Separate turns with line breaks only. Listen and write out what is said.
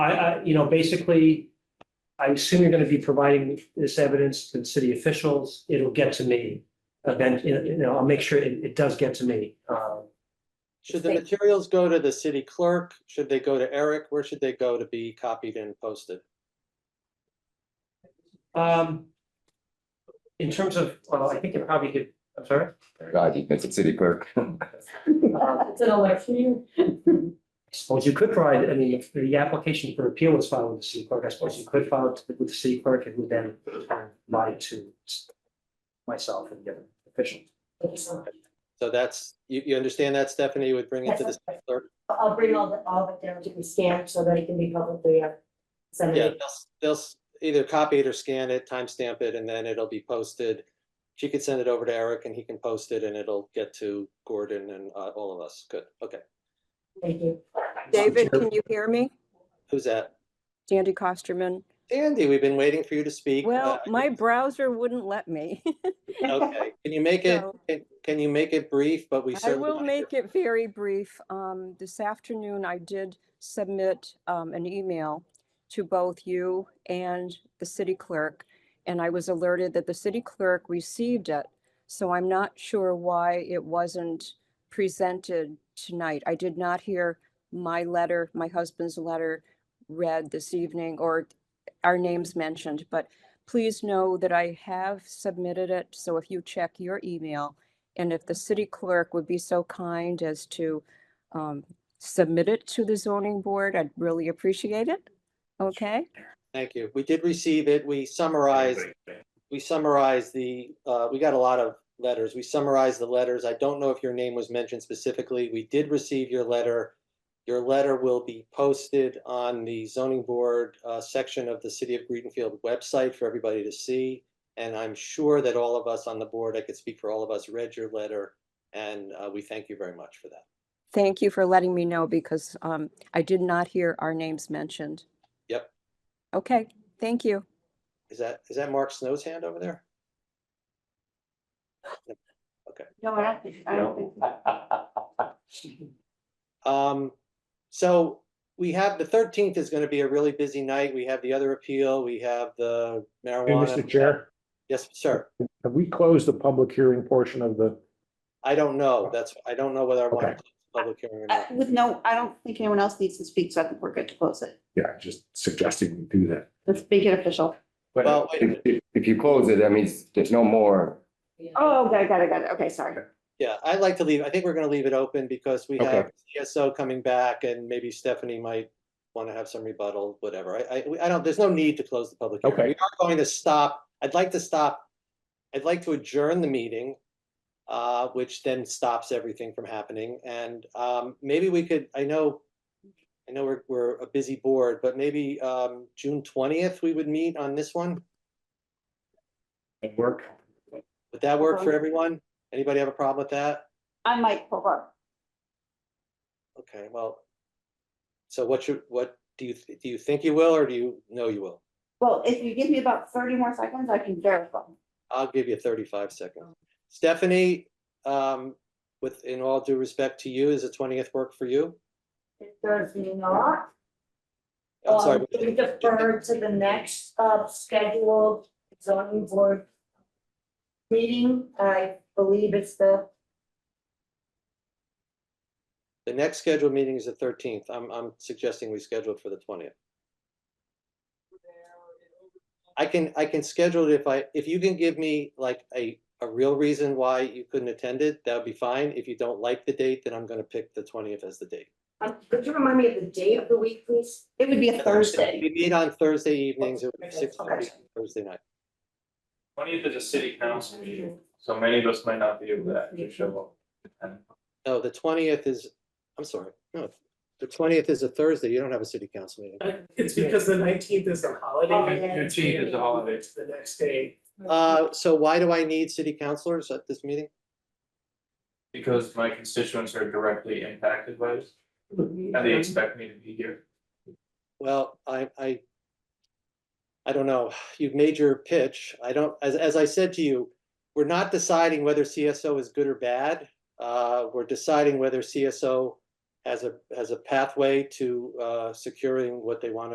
I, I, you know, basically, I assume you're gonna be providing this evidence to the city officials. It'll get to me. Event, you know, I'll make sure it, it does get to me. Um,
Should the materials go to the city clerk? Should they go to Eric? Where should they go to be copied and posted?
Um, in terms of, well, I think it probably could, I'm sorry.
God, you it's a city clerk.
It's an election.
I suppose you could provide, I mean, if the application for appeal was filed with the city clerk, I suppose you could file it with the city clerk and would then provide it to myself and the other officials.
So that's, you, you understand that, Stephanie, would bring it to the
Yes,
city clerk?
I'll bring all the, all of it down to be scanned so that it can be publicly uh, sent.
Yeah, they'll- they'll s- either copy it or scan it, timestamp it, and then it'll be posted. She could send it over to Eric and he can post it and it'll get to Gordon and uh, all of us. Good, okay.
Thank you.
David, can you hear me?
Who's that?
Sandy Costerman.
Andy, we've been waiting for you to speak.
Well,
Uh,
my browser wouldn't let me.
Okay, can you make it,
So-
can- can you make it brief, but we
I
certainly.
will
wanna hear
make it very brief. Um, this afternoon, I did submit, um, an email to both you and the city clerk, and I was alerted that the city clerk received it. So I'm not sure why it wasn't presented tonight. I did not hear my letter, my husband's letter read this evening or our names mentioned, but please know that I have submitted it. So if you check your email, and if the city clerk would be so kind as to um, submit it to the zoning board, I'd really appreciate it. Okay,
Thank you. We did receive it. We summarized, we summarized the, uh, we got a lot of letters. We summarized the letters. I don't know if your name was mentioned specifically. We did receive your letter. Your letter will be posted on the zoning board, uh, section of the City of Greenfield website for everybody to see. And I'm sure that all of us on the board, I could speak for all of us, read your letter, and, uh, we thank you very much for that.
thank you for letting me know because um, I did not hear our names mentioned.
Yep.
Okay, thank you.
Is that, is that Mark Snow's hand over there?
No, I don't think, I don't think.
Um, so we have, the thirteenth is gonna be a really busy night. We have the other appeal, we have the
Hey, Mr.
marijuana.
Chair,
Yes, sir.
have we closed the public hearing portion of the,
I don't know. That's, I don't know whether I want to
Okay.
close the public hearing or
Uh,
not.
With no, I don't think anyone else needs to speak, so I think we're good to close it.
yeah, just suggesting we do that.
Let's make it official.
Well, wait
But
a
if,
minute.
if- if you close it, that means there's no more.
Oh, got it, got it, got it. Okay, sorry.
Yeah, I'd like to leave, I think we're gonna leave it open because we
Okay.
have CSO coming back and maybe Stephanie might want to have some rebuttal, whatever. I, I, we- I don't, there's no need to close the public hearing.
Okay.
We are going to stop, I'd like to stop, I'd like to adjourn the meeting, uh, which then stops everything from happening. And, um, maybe we could, I know, I know we're, we're a busy board, but maybe, um, June twentieth, we would meet on this one.
At work?
Would that work for
Um,
everyone? Anybody have a problem with that?
I might pull up.
Okay, well, so what should, what, do you, do you think you will or do you know you will?
Well, if you give me about thirty more seconds, I can verify.
I'll give you thirty-five seconds. Stephanie, um, with, in all due respect to you, is the twentieth work for you?
It does not.
I'm sorry.
Um, We defer to the next uh, scheduled zoning board meeting. I believe it's the,
The next scheduled meeting is the thirteenth. I'm, I'm suggesting we schedule it for the twentieth. I can, I can schedule it if I, if you can give me like a, a real reason why you couldn't attend it, that would be fine. If you don't like the date, then I'm gonna pick the twentieth as the date.
um, could you remind me of the day of the week, please?
It would be a Thursday.
We meet on Thursday evenings, it would be
Okay.
six thirty Thursday night.
Twentieth is a city council meeting, so many of us might not be able to actually show up.
No, the twentieth is, I'm sorry, no, the twentieth is a Thursday, you don't have a city council meeting.
It's because the nineteenth is a holiday.
Holiday.
Fifteenth is a holiday.
It's the next day.
Uh, so why do I need city councilors at this meeting?
Because my constituents are directly impacted by this, and they expect me to be here.
Well, I, I. I don't know, you've made your pitch, I don't, as, as I said to you, we're not deciding whether CSO is good or bad. Uh, we're deciding whether CSO has a, has a pathway to, uh, securing what they want